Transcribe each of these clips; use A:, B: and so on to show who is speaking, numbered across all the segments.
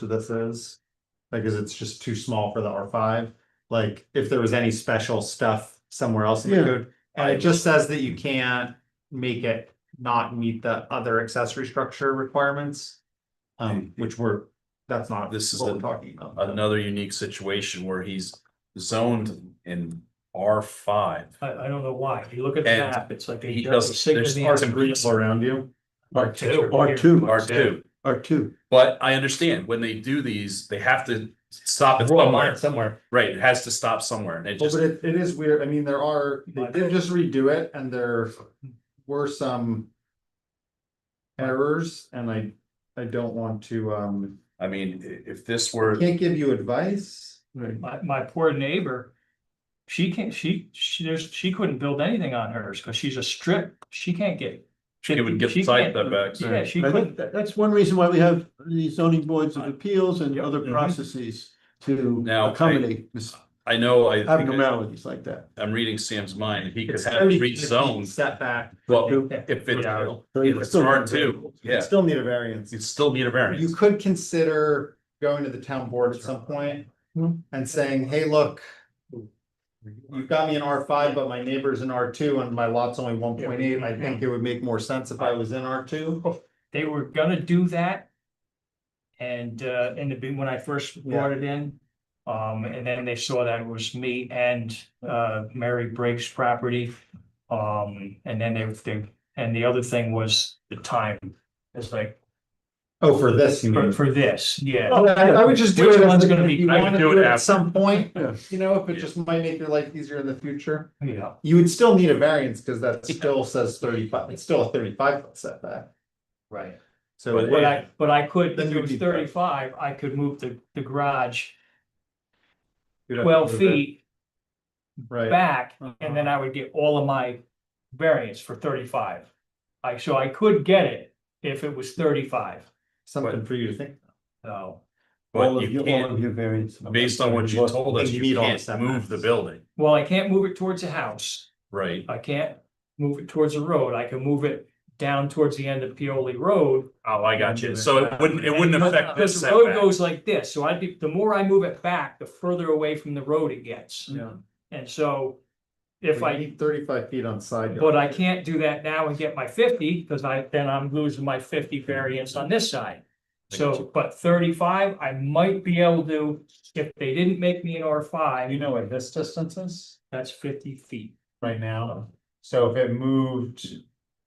A: to this is? Like, is it's just too small for the R five? Like, if there was any special stuff somewhere else in the
B: Yeah.
A: code? And it just says that you can't make it not meet the other accessory structure requirements. Um, which we're, that's not.
C: This is
A: what we're
C: an-
A: Talking about.
C: another unique situation where he's zoned in R five.
D: I, I don't know why. If you look at the
C: And
D: map, it's like. a
C: he
D: double
C: doesn't-
D: signal
C: there's
D: in
C: parts
D: the
C: and
D: green.
C: pieces
A: All around you.
D: R two.
B: R two,
C: R two,
B: R two.
C: but I understand when they do these, they have to stop it
A: Draw a line
C: somewhere,
A: Somewhere.
C: right? It has to stop somewhere and it
A: Well,
C: just,
A: but it, it is weird, I mean, there are, they did just redo it and there were some. Errors and I, I don't want to, um,
C: I mean, i- if this were,
A: can't give you advice.
B: Right.
D: My, my poor neighbor. She can't, she, she, there's, she couldn't build anything on hers because she's a strip. She can't get.
C: it would get
D: she
C: side
D: can't-
C: setbacks.
D: Yeah, she
B: I think
D: couldn't.
B: that- That's one reason why we have the zoning boards of appeals and
D: Yep.
B: other
C: Mhm.
B: processes to
C: Uh, Now, I-
B: accommodate mis-
C: I know, I think
B: abnormalities like that.
C: I'm reading Sam's mind. He could
A: It's
C: have
A: 30
C: three zones.
A: Setback.
C: Well,
D: Yeah.
C: if it's
A: Yeah.
C: it's R two, yeah,
A: Still need a variance.
C: you'd still need a
A: You
C: variance.
A: could consider going to the town board at some point
C: Hmm.
A: and saying, hey, look. You've got me in R five, but my neighbor's in R two and my lot's only one point eight. I think it would make more sense if I was in R two.
D: They were gonna do that. And, uh, in the, be- when I first brought it in. Um, and then they saw that it was me and, uh, Mary Briggs property. Um, and then they, they, and the other thing was the time. It's like,
A: Oh, for this, you
D: For,
A: mean?
D: for this, yeah.
A: Oh, I, I would just do
D: Which
A: it. if
D: one's gonna be-
A: You
C: I would
A: wanna
C: do it
A: do it at
C: after.
A: some point,
B: Yeah.
A: you know, if it
C: Yeah.
A: just might make your life easier in the future.
D: Yeah,
A: You would still need a variance because that still says thirty-five, it's still a thirty-five foot setback.
D: right.
A: So
C: But
D: But
A: if-
D: I, but I could,
A: Then
D: if it
A: you'd
D: was
A: be-
D: thirty-five, I could move the, the garage
A: you'd have to
D: twelve
A: move it,
D: feet
A: Right.
D: back, and then I would get all of my variance for thirty-five. I, so I could get it if it was thirty-five,
A: Something for you to think.
D: so,
B: All
C: But
B: of
C: you
B: your- all of
C: can't,
B: your variants.
C: based on what you told us,
A: You
C: you
A: meet all the
C: can't move the
A: setbacks.
C: building,
D: well, I can't move it towards a house.
C: right?
D: I can't move it towards a road. I can move it down towards the end of Pioli Road,
C: Oh, I got you. So it wouldn't, it wouldn't
D: Because-
C: affect this
D: because The road
C: setback.
D: goes like this, so I'd be, the more I move it back, the further away from the road it gets.
A: Yeah.
D: And so if
A: Well,
D: I,
A: you need Thirty-five feet on side. yard.
D: but I can't do that now and get my fifty, because I, then I'm losing my fifty variance on this side.
C: I got
D: So, but thirty-five, I might be able to, if they didn't make me an R five,
A: know what this distance is
D: that's fifty feet.
A: right now? So if it moved,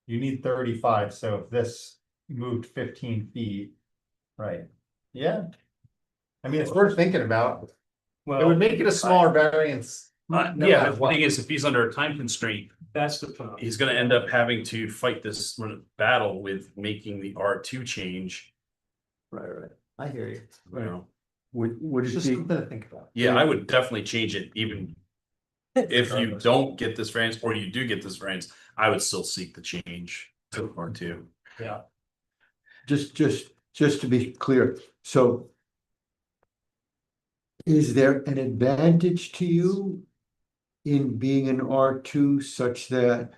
A: you need thirty-five, so if this moved fifteen feet. Right. Yeah. I mean, it's worth thinking about. It would
D: Well,
A: make it a smaller variance.
C: Uh,
A: no
C: yeah,
A: matter
C: but the
A: what.
C: thing is, if he's under a time constraint,
D: that's the problem.
C: he's gonna end up having to fight this battle with making the R two change,
B: Right, right.
A: I hear you.
C: you know?
B: Would, would
A: It's
B: it
A: just
B: be,
A: something to think about.
C: Yeah, I would definitely change it even if you don't get this variance or you do get this variance, I would still seek the change to R two.
B: just, just, just to be clear, so is there an advantage to you in being an R two such that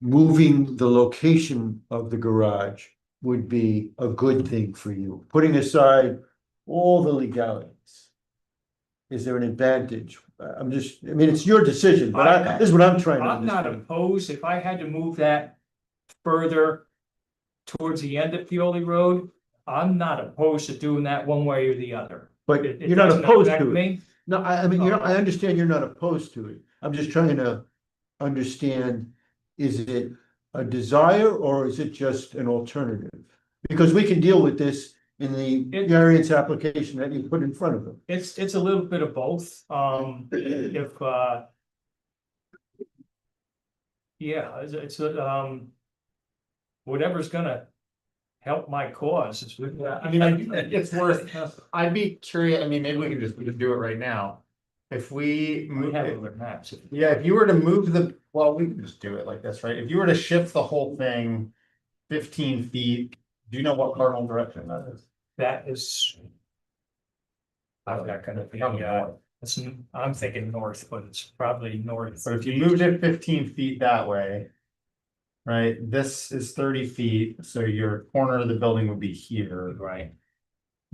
B: moving the location of the garage would be a good thing for you, putting aside all the legalities? Is there an advantage? Uh, I'm just, I mean, it's your decision, but I, this is what I'm trying to
D: I'm not
B: understand.
D: opposed, if I had to move that further towards the end of Pioli Road, I'm not opposed to doing that one way or the other.
B: But
D: It- it
B: you're not
D: doesn't
B: opposed
D: affect
B: to it.
D: me.
B: No, I, I mean, you know, I understand you're not opposed to it. I'm just trying to understand, is it a desire or is it just an alternative? Because we can deal with this in the
D: It-
B: variance application that you put in front of them.
D: It's, it's a little bit of both, um, if, uh, yeah, it's, it's, um, whatever's gonna help my cause, uh, it's.
A: I mean, I, it's worth, I'd be curious, I mean, maybe we could just, we could do it right now. If we,
D: We
A: move
D: have
A: it-
D: other maps.
A: yeah, if you were to move the, well, we can just do it like this, right? If you were to shift the whole thing fifteen feet, do you know what cardinal direction that is?
D: That is. I'm not gonna, yeah, it's, I'm thinking north, but it's probably north.
A: So if you moved it fifteen feet that way. Right, this is thirty feet, so your corner of the building would be here.
D: Right,